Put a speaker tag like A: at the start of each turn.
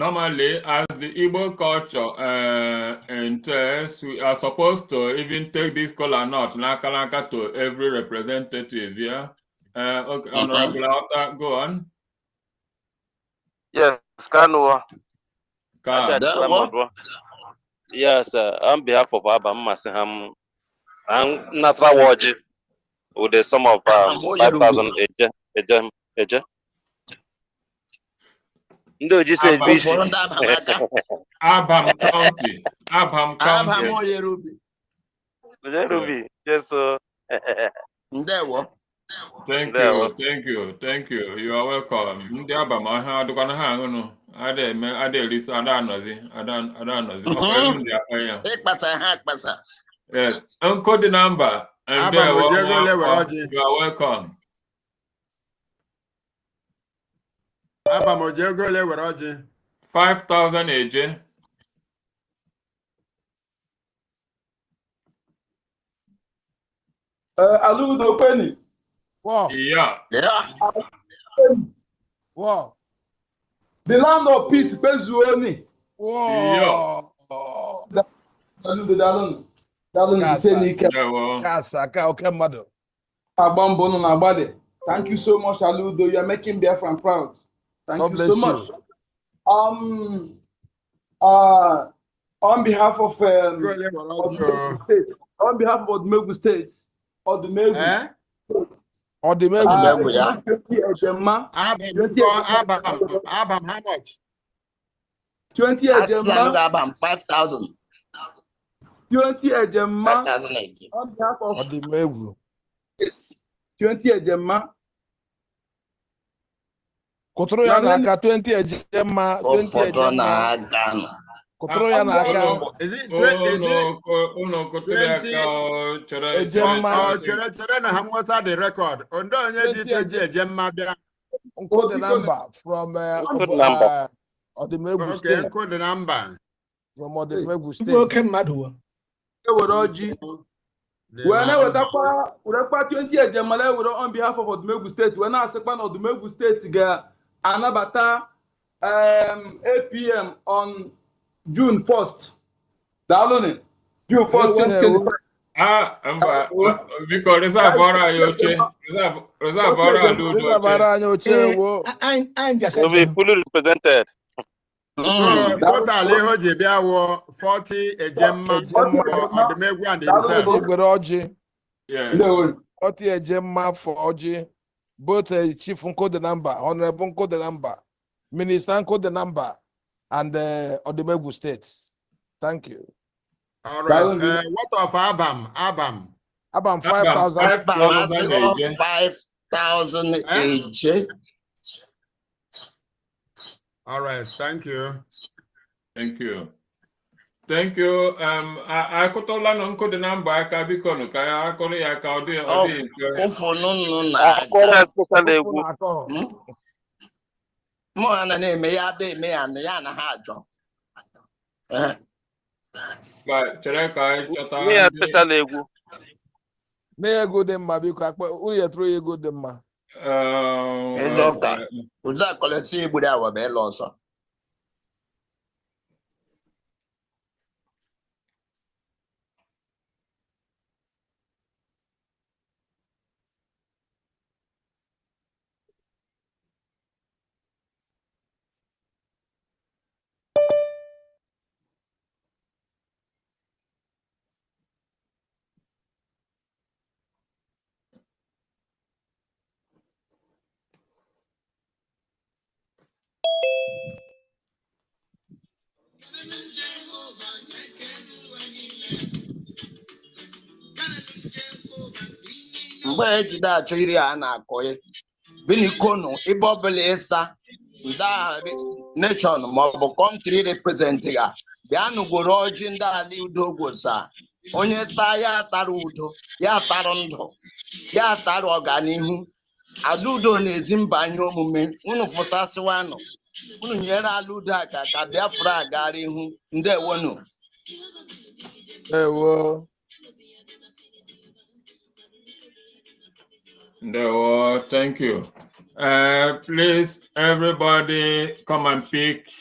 A: normally as the Igbo culture uh, entails, we are supposed to even take this kola nut nakalaka to every representative, yeah? Uh, okay, Honorable Alta, go on.
B: Yes, Kanua.
A: Ka-
C: Ah, That one?
B: Yes, uh, on behalf of Abba Masiham and Nasra Waji, with the sum of
C: Ah,
B: um,
C: what you
B: five
C: do?
B: thousand eje, eje, eje. Ndị oji si
A: Abba.
B: ebisi.
C: Ụfọdụ ndị abam aka.
A: Abham County, Abham
C: Abam
A: County.
C: onye rubi.
B: Ruby, yes, so.
C: Ndewo.
A: Thank
B: There
A: you,
B: we-
A: thank you, thank you. You are welcome. Ndị Abham ahịa adịkwana ha aṅụnụ. Ada eme, ada erisi, ada anọzi, ada ada anọzi. Ọ kwa elu ndị akpa ya.
C: Ịkpata ha akpata.
A: Yes, encode the number. And
D: Abham
A: there, one
D: Ojiego
A: more
D: Lewe
A: call.
D: Oji.
A: you are welcome.
D: Abam Ojiego Lewere Ọjị.
A: 5,000 AJ.
E: Eh, Aludo Feni,
D: Oh.
F: War,
A: Yeah,
C: Lee-
F: war,
E: the land of peace, Pezuoni.
F: war.
E: Aludo Dalun, Dalun
F: Yes,
E: Senike,
A: there we are.
F: Yes, aka oke mmadụ.
E: Agbambono Nabade. eh, Thank you so much, Aludo. You are making Biafran proud. Thank
F: God
E: you so
F: bless
E: much.
F: you.
E: Um, uh, on behalf of um,
D: Ojiego Lewere Ọjị o.
E: Odumegwu State, on behalf of Odumegwu State, Odumegwu.
D: Eh?
F: Ọ dị m egwu.
E: uh,
C: Odumegwu, yeah.
E: Ejema,
D: Abam,
E: Twenty-
D: go- Abam, Abam, how much?
E: 20
C: Atụla ndị
E: Ejema,
C: abam 5,000.
E: 20 Ejema,
C: 5,000 eji.
E: on behalf of
F: Ọ dị m egwu.
E: States, 20 Ejema,
F: Kụtụrụ ya n'aka 20 eje mma, 20
C: Ụfọdụ
F: eje mma.
C: na-aga nọ.
F: Kụtụrụ ya n'aka
D: Oh, Is it, twe- is
A: Oh,
D: it,
A: Unu kụtụrụ
D: twenty-
A: aka o, chere.
F: Eje
A: chere-
F: mma.
D: oh, chere, chere na ha nwesa the record. Ondo onye ji
F: Twenty eje-
D: toji eje mma bịa.
F: nkụ the number from eh,
B: Nkụ the
F: Obo-
B: number.
F: eh, Ọdịmegwu
D: Okay,
F: steeti.
D: nkụ dị na mba.
F: From Ọdịmegwu
G: Ndị oke
F: steeti.
G: mmadụ wo.
E: ewere ọjị
D: Dị na-
E: wee na-ewetakwa werekwa 20 ejemala ewere on behalf of odumegwu steeti wee na-asịkwa na odumegwu steeti ga-anabata um, apm on june 1st daalụnụ june 1st
F: Ewo.
E: 2025.
A: Ah, mba,
D: Oh.
A: biko reserve ọrụ anyị oche. Reserve- Reserve ọrụ anyị
F: Ndị
A: udo
F: nabara
A: oche.
F: anyị oche
G: Ee,
F: wo.
G: a- anyị anyị gasị
B: Ruby fully represented.
C: Mm.
D: So, total ihe o ji bịa wụ 40 eje mma
F: Ejemma.
D: for Odumegwu and himself.
F: Otu egbere e ọjị. e
A: Yes.
E: Ndewo.
F: Oti Ejema for Oji, both uh, Chief Nko the number, Honorable Nko the number, Minister Nko the number, and uh, Odemegu State. Thank you.
D: All
E: That
D: right.
E: will be-
D: Uh, what of Abam? Abam.
F: About
A: Abam,
F: 5,000.
A: five-
C: Abam atụla 5,000
D: Eh?
C: eje.
D: All right. Thank you.
A: Thank you. Thank you. Um, I, I could nkụ dị na mba aka biko nụ ka ya akụrụ ya ka ọ dị ọ dị
D: Oh.
A: mfe.
C: Ụfọdụ nọ
B: Akwara
C: na-aga.
B: especially egwu.
C: Mm. Mụ ha na na-eme ya ada eme ya na ya na ha ajọ. Eh,
A: Ba- Chere ka anyị chọta
B: Me
A: ndị
B: especially egwu.
F: Na ego dị mma biko akpa uru ya tụrụ ya ego dị mma.
A: um,
C: Eze ụka. Ụzọ akọlọsị egburu awa bụ ịlụ ọsọ. mgbe ejide achọ iri a na-akọ ya binikonu ebe ọbụla ịsa ndị agha nation maọbụ kọntri reprezent ya bịa nụgoro ọjị ndị ala udo gwosa onye taa ya tara udo ya tara ndụ ya tara ọganihu ala udo na-ezi mba anyị omume unu fụtasịwanụ unu nyere ala udo aka ka biafra gara ihu ndewonu
F: Ewo.
A: Ndewo, thank you. Uh, please, everybody, come and pick